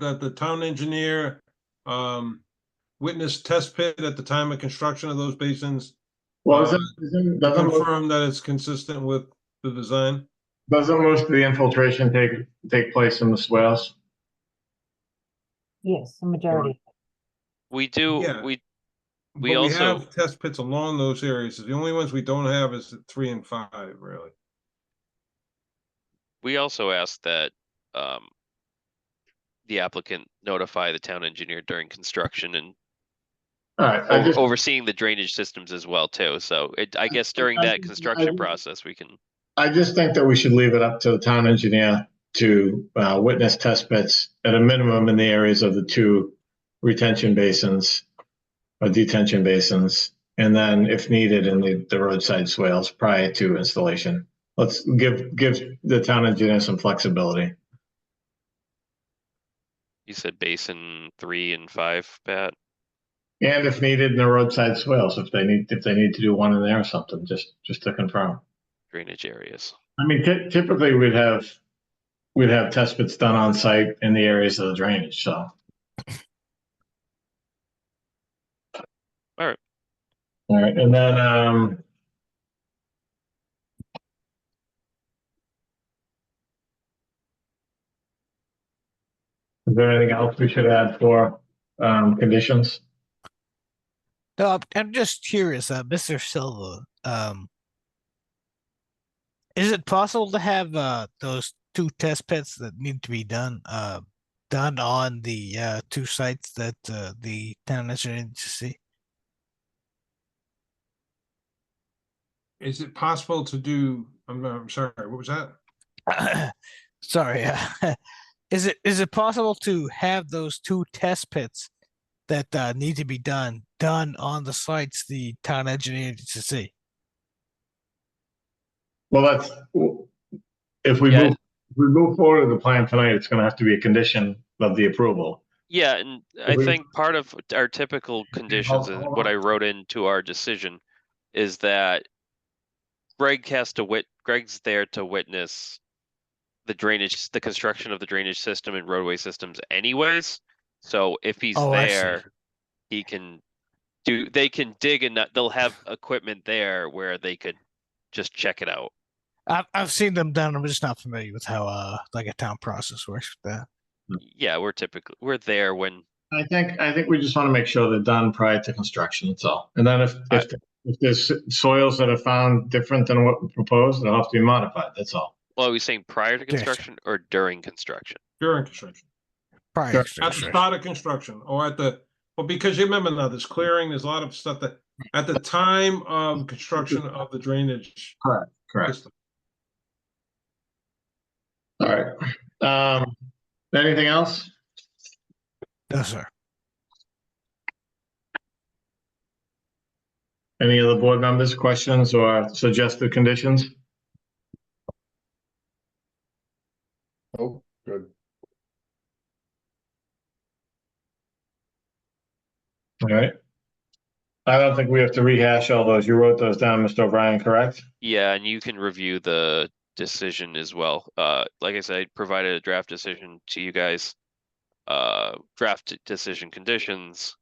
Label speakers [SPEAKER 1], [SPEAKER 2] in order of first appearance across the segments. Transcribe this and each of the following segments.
[SPEAKER 1] that the town engineer um witnessed test pit at the time of construction of those basins.
[SPEAKER 2] Well, isn't, isn't, doesn't, most-
[SPEAKER 1] Confirm that it's consistent with the design.
[SPEAKER 2] doesn't most of the infiltration take, take place in the swales?
[SPEAKER 3] Yes, the majority.
[SPEAKER 4] We do,
[SPEAKER 1] Yeah.
[SPEAKER 4] we,
[SPEAKER 1] But
[SPEAKER 4] We also-
[SPEAKER 1] have Test pits along those areas. The only ones we don't have is the three and five, really.
[SPEAKER 4] we also asked that, um. The applicant notify the town engineer during construction and
[SPEAKER 2] All right, I
[SPEAKER 4] o-
[SPEAKER 2] just,
[SPEAKER 4] overseeing the drainage systems as well too, so it, I guess during
[SPEAKER 2] I
[SPEAKER 4] that
[SPEAKER 2] didn't- I
[SPEAKER 4] construction
[SPEAKER 2] didn't-
[SPEAKER 4] process, we can.
[SPEAKER 2] I just think that we should leave it up to the town engineer to, uh, witness test pits at a minimum in the areas of the two retention basins or detention basins, and then if needed in the, the roadside swales prior to installation. Let's give, give the town engineer some flexibility.
[SPEAKER 4] You said basin three and five, Pat?
[SPEAKER 2] And if needed, in the roadside swales, if they need, if they need to do one in there or something, just, just to confirm.
[SPEAKER 4] drainage areas.
[SPEAKER 2] I mean, ty- typically we'd have, we'd have test pits done on site in the areas of the drainage, so.
[SPEAKER 4] Alright.
[SPEAKER 2] All right, and then, um. Is there anything else we should add for, um, conditions?
[SPEAKER 5] No, I'm- Um, I'm just curious, uh, Mr. Silva, um, is it possible to have, uh, those two test pits that need to be done, uh, done on the, uh, two sites that, uh, the town engineer needs to see?
[SPEAKER 1] Is it possible to do, I'm, I'm sorry, what was that?
[SPEAKER 5] Sorry, uh, is it, is it possible to have those two test pits that, uh, need to be done, done on the sites the town engineer needs to see?
[SPEAKER 2] Well, that's, if we
[SPEAKER 4] Yeah.
[SPEAKER 2] move, if we move forward with the plan tonight, it's gonna have to be a condition of the approval.
[SPEAKER 4] Yeah, and I
[SPEAKER 2] we-
[SPEAKER 4] think part of our typical conditions
[SPEAKER 2] hold-
[SPEAKER 4] and
[SPEAKER 2] hold
[SPEAKER 4] what
[SPEAKER 2] on.
[SPEAKER 4] I wrote into our decision is that Greg has to wit, Greg's there to witness the drainage, the construction of the drainage system and roadway systems anyways. So if he's
[SPEAKER 5] Oh, I see.
[SPEAKER 4] there, he can do, they can dig and not- they'll have equipment there where they could just check it out.
[SPEAKER 5] I've, I've seen them done, I'm just not familiar with how, uh, like a town process works with that.
[SPEAKER 4] Yeah, we're typically, we're there when
[SPEAKER 2] I think, I think we just wanna make sure they're done prior to construction, that's all. And then if, if, if there's soils that are found different than what we proposed, they'll have to be modified, that's all.
[SPEAKER 4] Well, are we saying prior to
[SPEAKER 5] During stru-
[SPEAKER 4] construction or during construction?
[SPEAKER 1] During construction,
[SPEAKER 5] Prior
[SPEAKER 2] Sure.
[SPEAKER 5] to
[SPEAKER 1] at the
[SPEAKER 5] construction.
[SPEAKER 1] start of construction or at the, well, because you remember now, there's clearing, there's a lot of stuff that, at the time of construction of the drainage
[SPEAKER 2] Correct.
[SPEAKER 1] system.
[SPEAKER 2] All right. Um, anything else?
[SPEAKER 5] No, sir.
[SPEAKER 2] Any other board members, questions or suggested conditions?
[SPEAKER 6] Oh, good.
[SPEAKER 2] All right. I don't think we have to rehash all those. You wrote those down, Mr. O'Brien, correct?
[SPEAKER 4] Yeah, and you can review the decision as well. Uh, like I said, I provided a draft decision to you guys. Uh, draft d- decision conditions.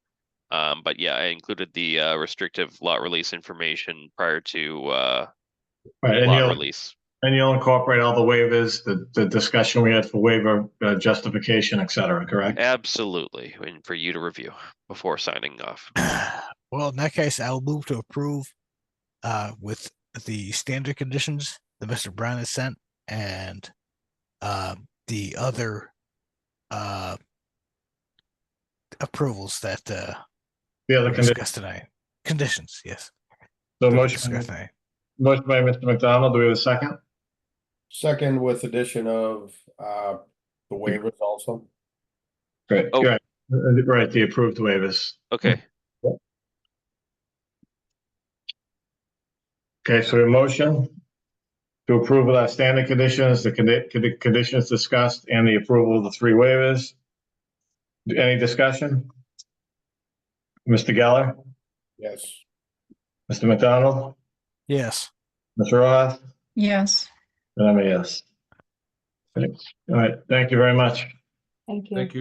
[SPEAKER 4] Um, but yeah, I included the uh, restrictive lot release information prior to uh,
[SPEAKER 2] Right, and
[SPEAKER 4] lot
[SPEAKER 2] you'll,
[SPEAKER 4] release.
[SPEAKER 2] and you'll incorporate all the waivers, the, the discussion we had for waiver uh, justification, et cetera, correct?
[SPEAKER 4] Absolutely, and for you to review before signing off.
[SPEAKER 5] Well, in that case, I'll move to approve uh, with the standard conditions that Mr. Brown has sent and uh, the other uh, approvals that uh,
[SPEAKER 2] The
[SPEAKER 5] were
[SPEAKER 2] other condition,
[SPEAKER 5] discussed tonight. Conditions, yes.
[SPEAKER 2] so
[SPEAKER 5] that were
[SPEAKER 2] motion,
[SPEAKER 5] discussed tonight.
[SPEAKER 2] motion by Mr. McDonald, do we have a second?
[SPEAKER 6] Second with addition of, uh, the waivers also.
[SPEAKER 2] Great,
[SPEAKER 4] Oh.
[SPEAKER 2] right, Uh, right, the approved waivers.
[SPEAKER 4] Okay,
[SPEAKER 2] Okay, so a motion to approve of our standard conditions, the condi- condi- conditions discussed, and the approval of the three waivers. Any discussion? Mr. Geller,
[SPEAKER 6] Yes.
[SPEAKER 2] Mr. McDonald,
[SPEAKER 5] Yes.
[SPEAKER 2] Mr. Roth?
[SPEAKER 7] Yes.
[SPEAKER 2] And I'm a yes. All right, thank you very much.
[SPEAKER 3] Thank you.
[SPEAKER 1] Thank you.